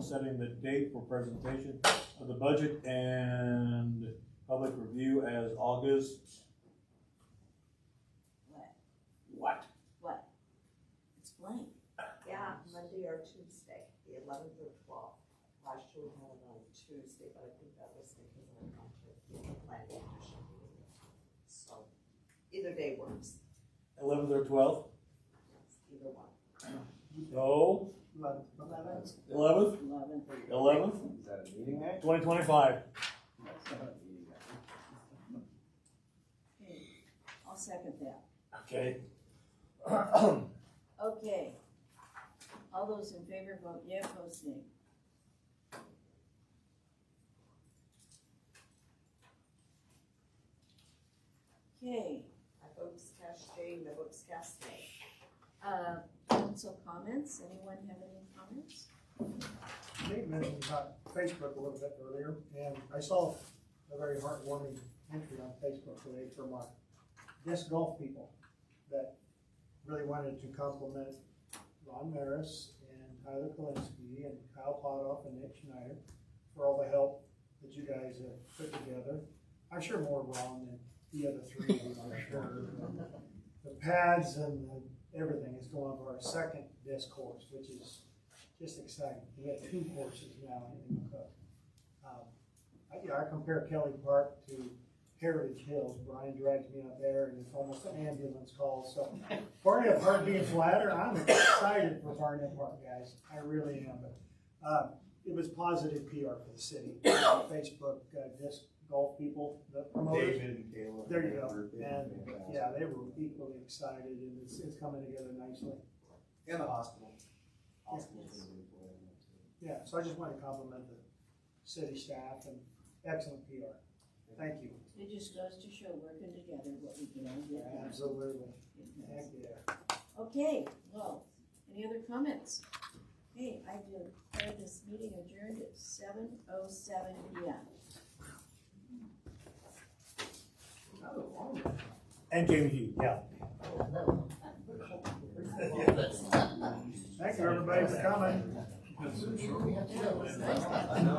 setting the date for presentation of the budget and public review as August. What? What? What? It's blank. Yeah, Monday or Tuesday, the eleventh or twelfth. Last year we had it on Tuesday, but I think that was because I went to the planning commission meeting. So either day works, Eleventh or twelfth? Yes, either one. No, eleventh, Eleven. eleventh, Is that a meeting night? twenty twenty-five. That's not a meeting night. I'll second that. Okay. Okay. All those in favor vote yeah, opposed nay. Okay, I votes cast yea, no votes cast nay. uh, council comments, anyone have any comments? Nate mentioned about Facebook a little bit earlier, and I saw a very heartwarming entry on Facebook today from our disc golf people that really wanted to compliment Ron Maris and Tyler Kalinsky and Kyle Potoff and Nick Schneider for all the help that you guys have put together. I'm sure more Ron than the other three, I'm sure. The pads and the- everything is going for our second disc course, which is just exciting. We have two courses now in McCook. Um, I, yeah, I compare Kelly Park to Heritage Hills. Brian drags me out there and it's almost an ambulance call, so. Barnett Park being flatter, I'm excited for Barnett Park, guys. I really am, but, uh, it was positive PR for the city. Facebook, uh, disc golf people, the promoters. David and Caleb. There you go. They've been And, fantastic. yeah, they were equally excited and it's, it's coming together nicely. And the hospital. Hospital's gonna be playing it too. Yeah, so I just want to compliment the city staff and excellent PR. Thank you. It just goes to show working together, what we can all get done. Absolutely. It does. Heck, yeah. Okay, well, any other comments? Okay, I declare this meeting adjourned at seven oh seven P M. And Jamie Hughes, yeah. Thank you, everybody, for coming. I know.